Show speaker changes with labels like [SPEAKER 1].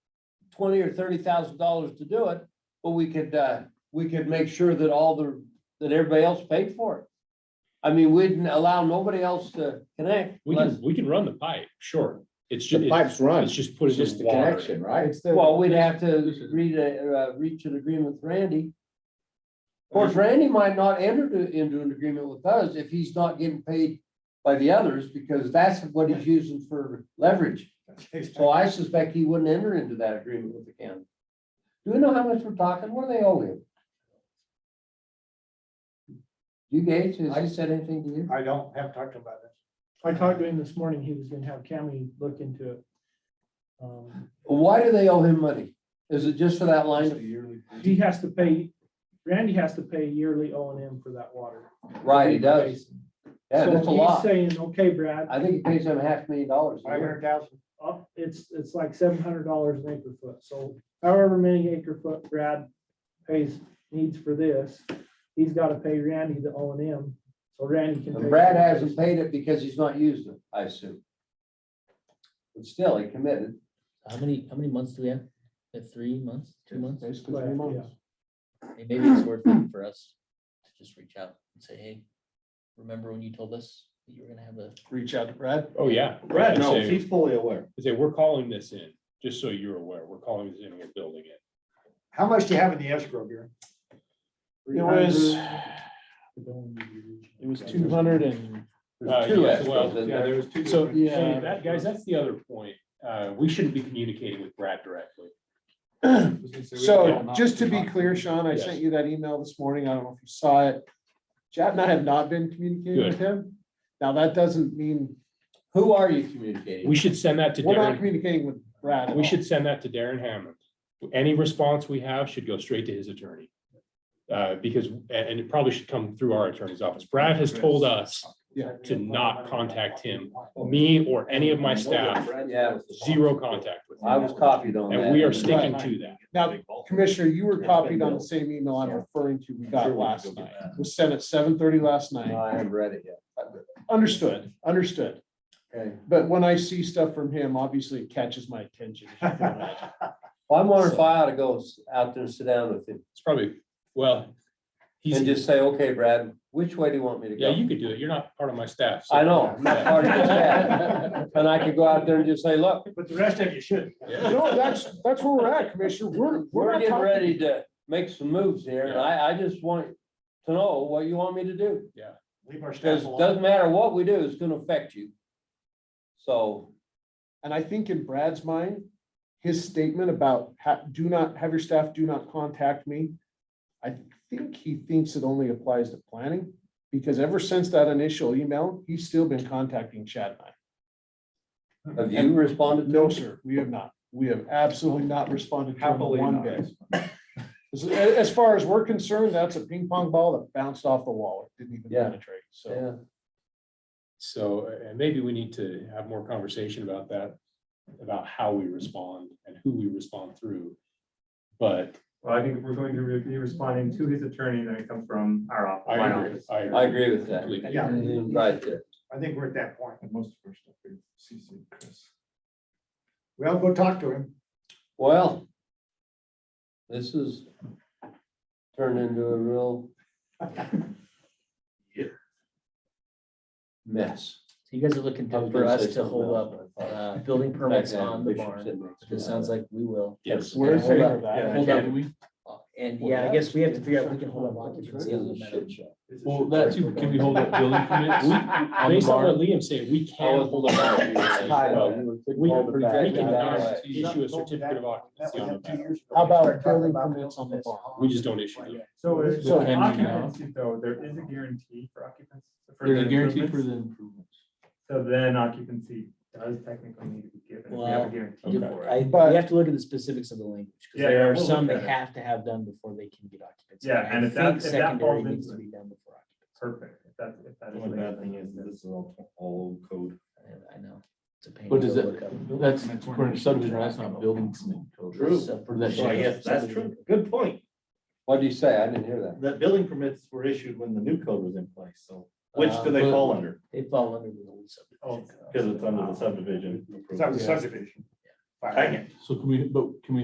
[SPEAKER 1] twenty or thirty thousand dollars to do it, but we could, uh, we could make sure that all the, that everybody else paid for it. I mean, we'd allow nobody else to connect.
[SPEAKER 2] We
[SPEAKER 1] unless-
[SPEAKER 2] can, we can run the pipe, sure. It's just,
[SPEAKER 3] The pipes run,
[SPEAKER 2] it's just put
[SPEAKER 3] it's
[SPEAKER 2] it in
[SPEAKER 3] just the
[SPEAKER 2] water.
[SPEAKER 3] connection, right?
[SPEAKER 1] Well, we'd have to read a, uh, reach an agreement with Randy. Of course, Randy might not enter to- into an agreement with us if he's not getting paid by the others, because that's what he's using for leverage. So I suspect he wouldn't enter into that agreement with the county. Do we know how much we're talking? What do they owe him? You Gage, has he said anything to you?
[SPEAKER 4] I don't have talked about this.
[SPEAKER 5] I talked to him this morning, he was gonna have Cammy look into it. Um,
[SPEAKER 1] Why do they owe him money? Is it just for that line? of-
[SPEAKER 5] He has to pay, Randy has to pay yearly O and M for that water.
[SPEAKER 1] Right, he does. Yeah,
[SPEAKER 5] So
[SPEAKER 1] that's a
[SPEAKER 5] he's
[SPEAKER 1] lot.
[SPEAKER 5] Saying, okay, Brad,
[SPEAKER 1] I think he pays him a half million dollars. a
[SPEAKER 4] Five
[SPEAKER 1] year.
[SPEAKER 4] hundred thousand,
[SPEAKER 5] up, it's, it's like seven hundred dollars an acre foot, so however many acre foot Brad pays, needs for this, he's gotta pay Randy the O and M, so Randy can.
[SPEAKER 1] And
[SPEAKER 5] pay-
[SPEAKER 1] Brad hasn't paid it because he's not used it, I assume. But still, he committed.
[SPEAKER 6] How many, how many months do we have? We have Three months, two months?
[SPEAKER 2] Uh,
[SPEAKER 3] Basically,
[SPEAKER 5] Right,
[SPEAKER 3] three
[SPEAKER 5] yeah.
[SPEAKER 3] months.
[SPEAKER 6] Hey, Maybe it's worth it for us to just reach out and say, hey, remember when you told us that you were gonna have a,
[SPEAKER 3] Reach out to Brad.
[SPEAKER 2] Oh, yeah.
[SPEAKER 3] Brad
[SPEAKER 2] And
[SPEAKER 3] knows,
[SPEAKER 2] say-
[SPEAKER 3] he's fully aware.
[SPEAKER 2] Say, we're calling this in, just so you're aware, we're calling this in, we're building it.
[SPEAKER 4] how much do you have in the escrow here?
[SPEAKER 3] It was, it was two hundred and,
[SPEAKER 1] There's
[SPEAKER 2] Uh,
[SPEAKER 1] two
[SPEAKER 2] yes,
[SPEAKER 1] escrows
[SPEAKER 2] well,
[SPEAKER 1] in
[SPEAKER 2] yeah,
[SPEAKER 1] there.
[SPEAKER 2] there was two.
[SPEAKER 3] So,
[SPEAKER 2] different-
[SPEAKER 3] yeah.
[SPEAKER 2] Hey, That, guys, that's the other point. Uh, we shouldn't be communicating with Brad directly.
[SPEAKER 3] so just to be clear, Sean, I
[SPEAKER 2] Yes.
[SPEAKER 3] sent you that email this morning. I don't know if you saw it. Chad and I have not been communicating with him. Now, that doesn't mean,
[SPEAKER 1] Who are you communicating?
[SPEAKER 2] We
[SPEAKER 1] with?
[SPEAKER 2] should send that to
[SPEAKER 3] we're not
[SPEAKER 2] Darren.
[SPEAKER 3] communicating with Brad. at
[SPEAKER 2] We
[SPEAKER 3] all.
[SPEAKER 2] should send that to Darren Hammond. Any response we have should go straight to his attorney. Uh, because, and, and it probably should come through our attorney's office. Brad has told us,
[SPEAKER 3] Yeah.
[SPEAKER 2] to not contact him. me or any of my staff,
[SPEAKER 1] Yeah,
[SPEAKER 2] zero contact with
[SPEAKER 1] I
[SPEAKER 2] him.
[SPEAKER 1] was copied on that.
[SPEAKER 2] And we are sticking to that.
[SPEAKER 3] Now, Commissioner, you were copied on the same email I'm referring to we got last night. It was sent at seven thirty last
[SPEAKER 1] No,
[SPEAKER 3] night.
[SPEAKER 1] I haven't read it yet.
[SPEAKER 3] Understood, understood.
[SPEAKER 1] Okay.
[SPEAKER 3] But when I see stuff from him, obviously it catches my attention. as you can imagine.
[SPEAKER 1] Well, I'm wondering if I ought to go s- out there and sit down with him
[SPEAKER 2] It's probably, well, he's,
[SPEAKER 1] and just say, okay, Brad, which way do you want me to
[SPEAKER 2] yeah,
[SPEAKER 1] go?
[SPEAKER 2] you could do it. You're not part of my staff. so-
[SPEAKER 1] I know, I'm not part of this staff. And I could go out there and just say, look,
[SPEAKER 4] But the rest of you should.
[SPEAKER 2] Yeah.
[SPEAKER 3] No, that's, that's where we're at, Commissioner. We're, we're
[SPEAKER 1] we're
[SPEAKER 3] not
[SPEAKER 1] getting
[SPEAKER 3] talking-
[SPEAKER 1] ready to make some moves here and I, I just want to know what you want me to do.
[SPEAKER 4] Leave our staff
[SPEAKER 1] Because it
[SPEAKER 4] alone.
[SPEAKER 1] doesn't matter what we do, it's gonna affect you. So,
[SPEAKER 3] And I think in Brad's mind, his statement about ha- do not, have your staff do not contact me. I think he thinks it only applies to planning, because ever since that initial email, he's still been contacting Chad and I.
[SPEAKER 1] have you responded? to
[SPEAKER 3] No,
[SPEAKER 1] it?
[SPEAKER 3] sir, we have not. We have absolutely not responded to him
[SPEAKER 4] Happily
[SPEAKER 3] one
[SPEAKER 4] not.
[SPEAKER 3] bit. As, as far as we're concerned, that's a ping pong ball that bounced off the wall. It didn't even
[SPEAKER 1] Yeah.
[SPEAKER 3] penetrate, so.
[SPEAKER 1] Yeah,
[SPEAKER 2] So, and maybe we need to have more conversation about that, about how we respond and who we respond through. But
[SPEAKER 7] Well, I think if we're going to be responding to his attorney, then it comes from our office.
[SPEAKER 2] I
[SPEAKER 7] my
[SPEAKER 2] agree,
[SPEAKER 7] office.
[SPEAKER 2] I
[SPEAKER 1] I
[SPEAKER 2] agree.
[SPEAKER 1] agree with that.
[SPEAKER 2] completely.
[SPEAKER 4] Yeah,
[SPEAKER 1] Right there.
[SPEAKER 4] I think we're at that point.
[SPEAKER 7] most of our stuff is CC Chris.
[SPEAKER 4] Well, go talk to him.
[SPEAKER 1] Well. This is turned into a real. Mess.
[SPEAKER 6] so you guys are looking
[SPEAKER 1] I was
[SPEAKER 6] to- for
[SPEAKER 1] gonna say
[SPEAKER 6] us to
[SPEAKER 1] something
[SPEAKER 6] hold
[SPEAKER 1] else,
[SPEAKER 6] up,
[SPEAKER 1] but I thought-
[SPEAKER 6] uh, building permits on the
[SPEAKER 1] Bishop
[SPEAKER 6] barn.
[SPEAKER 1] said next
[SPEAKER 6] It
[SPEAKER 1] month.
[SPEAKER 6] sounds like we will.
[SPEAKER 2] Yes.
[SPEAKER 3] We're in
[SPEAKER 6] Hold
[SPEAKER 3] favor
[SPEAKER 6] up.
[SPEAKER 3] of that.
[SPEAKER 6] Hold up. Uh, And
[SPEAKER 1] Well,
[SPEAKER 6] yeah, I
[SPEAKER 1] that
[SPEAKER 6] guess
[SPEAKER 1] is-
[SPEAKER 6] we have to figure out, if we can hold up occupancy on the
[SPEAKER 1] It's a
[SPEAKER 6] meadow.
[SPEAKER 1] shit show.
[SPEAKER 2] Well, that too, can we hold up building permits? Based on what Liam said, we can hold up. building permits as well. We can, we cannot issue a certificate of
[SPEAKER 4] That
[SPEAKER 2] occupancy
[SPEAKER 4] was
[SPEAKER 2] on the
[SPEAKER 4] him two
[SPEAKER 2] matter.
[SPEAKER 4] years ago.
[SPEAKER 3] How about
[SPEAKER 4] We talked
[SPEAKER 3] building
[SPEAKER 4] about
[SPEAKER 3] permits on the
[SPEAKER 4] this.
[SPEAKER 3] farm?
[SPEAKER 2] We just don't issue them.
[SPEAKER 7] So it's
[SPEAKER 3] So
[SPEAKER 7] so
[SPEAKER 3] can we now?
[SPEAKER 7] occupancy though, there is a guarantee for occupancy. for the improvements.
[SPEAKER 3] improvements.
[SPEAKER 7] So then occupancy does technically need to be given. if We have
[SPEAKER 6] Well,
[SPEAKER 7] a guarantee
[SPEAKER 6] If-
[SPEAKER 7] for it.
[SPEAKER 6] I,
[SPEAKER 3] But-
[SPEAKER 6] we have to look at the specifics of the language, because
[SPEAKER 7] Yeah, yeah,
[SPEAKER 6] there are
[SPEAKER 7] we'll look
[SPEAKER 6] some
[SPEAKER 7] at
[SPEAKER 6] they
[SPEAKER 7] it.
[SPEAKER 6] have to have done before they can get occupancy.
[SPEAKER 7] Yeah,
[SPEAKER 6] I
[SPEAKER 7] and if that-
[SPEAKER 6] think
[SPEAKER 7] if that
[SPEAKER 6] secondary
[SPEAKER 7] falls
[SPEAKER 6] Needs to
[SPEAKER 7] into
[SPEAKER 6] be done before occupancy.
[SPEAKER 7] Perfect. If that's, if that is.
[SPEAKER 8] The only bad thing is that this is all, all old code.
[SPEAKER 6] I- I know. It's a pain.
[SPEAKER 8] But
[SPEAKER 6] to
[SPEAKER 8] does
[SPEAKER 6] go
[SPEAKER 8] it-
[SPEAKER 6] look up.
[SPEAKER 8] That's according to subdivision, that's not building.
[SPEAKER 6] Sub-
[SPEAKER 8] So I guess that's true. Good point.
[SPEAKER 1] What do you say? I didn't hear that.
[SPEAKER 8] That building permits were issued when the new code was in place, so which do they fall under?
[SPEAKER 6] They fall under the old subdivision.
[SPEAKER 8] Because it's under the subdivision.
[SPEAKER 4] That was subdivision.
[SPEAKER 8] I can-
[SPEAKER 9] So can we, but can we